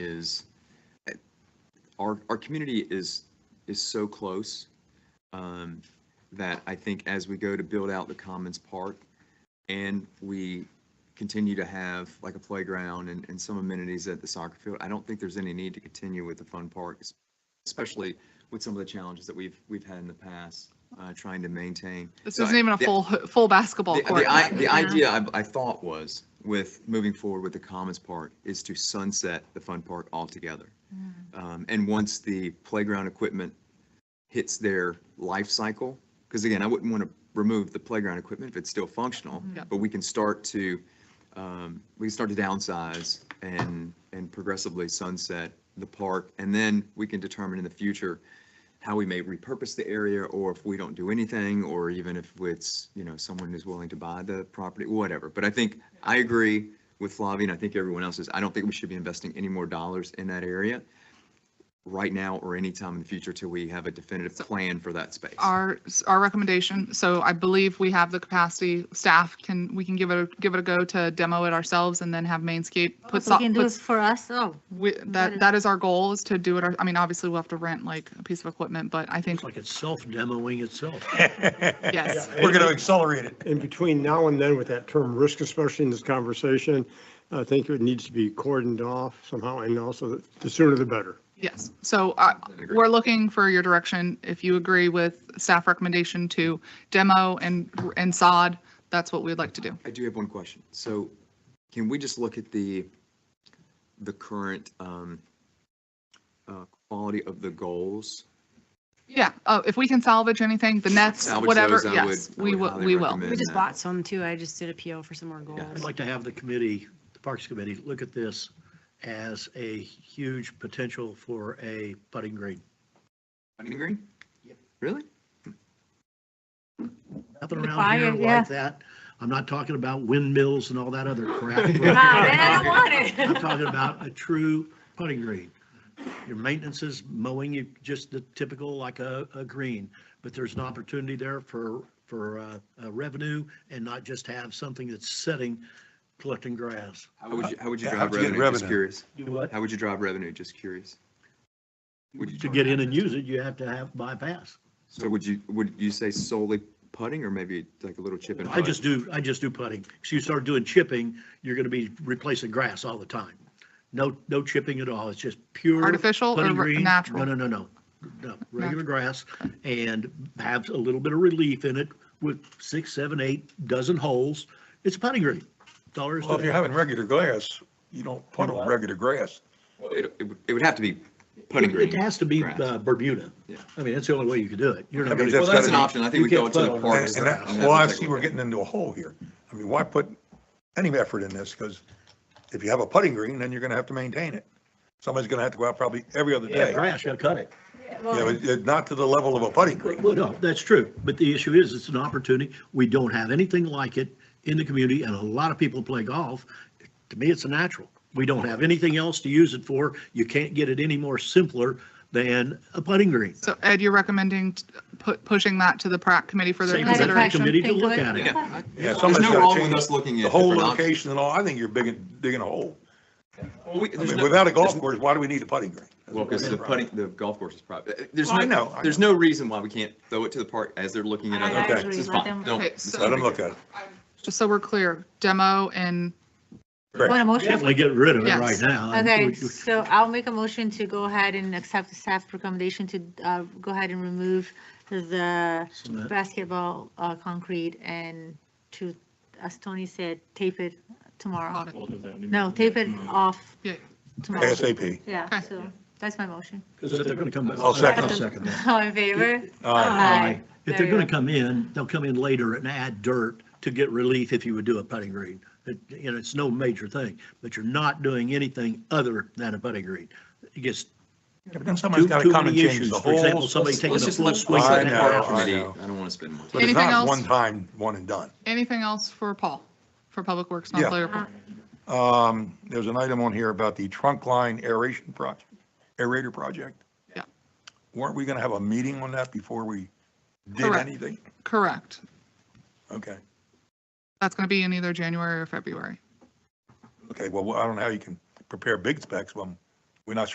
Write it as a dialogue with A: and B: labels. A: is uh, our, our community is, is so close um, that I think as we go to build out the Commons Park and we continue to have like a playground and, and some amenities at the soccer field, I don't think there's any need to continue with the fun park, especially with some of the challenges that we've, we've had in the past, uh, trying to maintain.
B: This
A: So I-
B: isn't even a
A: the-
B: full, full basketball
A: The,
B: court.
A: the, i- the
B: Yeah.
A: idea I, I thought was with moving forward with the Commons Park is to sunset the Fun Park altogether.
B: Mm.
A: Um, and once the playground equipment hits their life cycle, because again, I wouldn't want to remove the playground equipment if it's still functional,
B: Yep.
A: but we can start to, um, we can start to downsize and, and progressively sunset the park. And then we can determine in the future how we may repurpose the area or if we don't do anything, or even if it's, you know, someone is willing to buy the property, whatever. But I think, I agree with Flavia and I think everyone else is, I don't think we should be investing any more dollars in that area right now or anytime in the future till we have a definitive plan for that space.
B: Our, our recommendation, so I believe we have the capacity, staff can, we can give it, a give it a go to demo it ourselves and then have Mainscape put,
C: If we
B: so-
C: Oh, can do it
B: puts,
C: for us, oh,
B: we- that,
C: is-
B: that is our goal is to do it. our- I mean, obviously we'll have to rent like a piece of equipment, but I think,
D: It's like it's self-demoing itself.
B: yes.
E: We're going to accelerate it.
F: And between now and then with that term risk, especially in this conversation, I think it needs to be cordoned off somehow and also the sooner the better.
B: Yes, so uh,
A: agree.
B: we're looking for your direction. If you agree with staff recommendation to demo and, and sod, that's what we'd like to do.
A: I do have one question. So can we just look at the, the current um, uh, quality of the goals?
B: Yeah, uh, if we can salvage anything, the nets,
A: Salvage
B: whatever,
A: those, I
B: yes,
A: would- I
B: we
A: would
B: will,
A: highly
B: we will.
A: recommend.
C: we just
A: Yeah.
C: bought some too. I just did a PO for some more
D: I'd
C: goals.
D: like to have the committee, the Parks Committee, look at this as a huge potential for a putting green.
A: Putting green? Really?
D: Nothing
C: The
D: around here
C: fire, yeah.
D: like that. I'm not talking about windmills and all that other crap.
C: Ah, man, I don't want
D: I'm
C: it.
D: talking about a true putting green. Your maintenance is mowing, you, just the typical like a, a green, but there's an opportunity there for, for uh, uh, revenue and not just have something that's sitting, collecting grass.
A: How would you, how would you
E: Yeah,
A: drive
E: how'd you get
A: revenue? Just
E: revenue?
A: curious.
D: Do what?
A: How would you drive revenue? Just curious. Would you,
D: To get in and use it, you have to have bypass.
A: so would you, would you say solely putting or maybe like a little chip and?
D: I just do, I just do putting. So you start doing chipping, you're going to be replacing grass all the time. No, no chipping at all. It's just pure.
B: Artificial or
D: putting
B: re-
D: green.
B: natural?
D: No, no, no, no, no, regular grass and have a little bit of relief in it with six, seven, eight dozen holes. It's a putting green. That's all there is
E: Well, if
D: to
E: you're
D: it.
E: having regular grass, you don't put on regular grass.
A: It, it would- it would have to be putting
D: It
A: green.
D: it has to be
A: grass.
D: uh, Bermuda.
A: Yeah.
D: I mean, that's the only way you could do it. You're
E: I
D: not
E: mean,
D: gonna-
E: that's Well, that's gotta an be-
A: option. I think
D: you
A: we go
D: can't
A: to the
D: put on
A: park
D: that.
E: And and that,
A: And
E: well, I
A: that's-
E: see we're getting into a hole here. I mean, why put any effort in this? Because if you have a putting green, then you're going to have to maintain it. Somebody's going to have to go out probably every other
D: Yeah,
E: day. Yeah,
D: grass, you gotta cut it.
C: Well,
E: but it- not to the level of a putting green.
D: Well, no, that's true, but the issue is, it's an opportunity, we don't have anything like it in the community, and a lot of people play golf. To me, it's a natural, we don't have anything else to use it for, you can't get it any more simpler than a putting green.
B: So Ed, you're recommending t- pu- pushing that to the Prac Committee for their
D: Same
C: with the Prac
B: consideration?
D: Committee to
C: Think
D: look
C: good.
D: at it.
A: Yeah.
E: Yeah,
A: There's
E: somebody's
A: no
E: got
A: wrong
E: to
A: with us
E: change
A: looking at.
E: the whole
A: different options.
E: location and all. I think you're digging, digging a hole.
A: Well, we-
E: I
A: there's
E: mean,
A: no-
E: without a golf course, why do we need a putting green?
A: Well, because the putting, the golf course is private. There's
E: Well, I
A: no,
E: know, I
A: there's no reason why we can't throw it to the park as they're looking at
C: I-
A: other
E: I
A: options.
C: agree.
A: It's
C: Let
A: fine.
C: them-
A: Don't.
B: Okay,
A: it's
B: so-
A: not a
E: Let them
A: big
E: look
A: deal.
E: at it.
B: Just so we're clear, demo and
C: Want a motion?
D: Definitely get rid of it
B: Yes.
D: right now.
C: Okay, so I'll make a motion to go ahead and accept the staff recommendation to uh, go ahead and remove the basketball uh, concrete and to, as Tony said, tape it tomorrow. No, tape it off
B: Yeah.
C: tomorrow.
E: ASAP.
C: Yeah,
B: Okay.
C: so that's my motion.
D: Because if they're gonna come. back-
E: I'll second.
D: I'll second that.
C: All in favor?
E: All
B: Uh,
E: right.
C: Aye.
D: If
C: There
D: they're
C: you
D: gonna
C: go.
D: come in, they'll come in later and add dirt to get relief if you would do a putting green. It- You know, it's no major thing, but you're not doing anything other than a putting green. It gets
E: Yeah, But then
D: too,
E: somebody's got to
D: too
E: come and
D: many
E: change
D: issues.
E: the
D: For example,
E: whole.
D: somebody taking a
A: Let's just
D: full
A: let,
D: swing
A: let's
E: I
A: let
D: at
A: the
E: know,
A: park
E: I
D: that.
A: committee, I
E: know.
A: don't want to spend more. time.
E: But it's
B: Anything
E: not
B: else?
E: one time, one and done.
B: anything else for Paul, for Public Works
E: Yeah.
B: non-public report?
E: Um, there's an item on here about the trunk line aeration project, aerator project.
B: Yeah.
E: Weren't we going to have a meeting on that before we did
B: Correct.
E: anything?
B: Correct.
E: Okay,
B: That's going to be in either January or February.
E: okay, well, I don't know how you can prepare big specs when we're not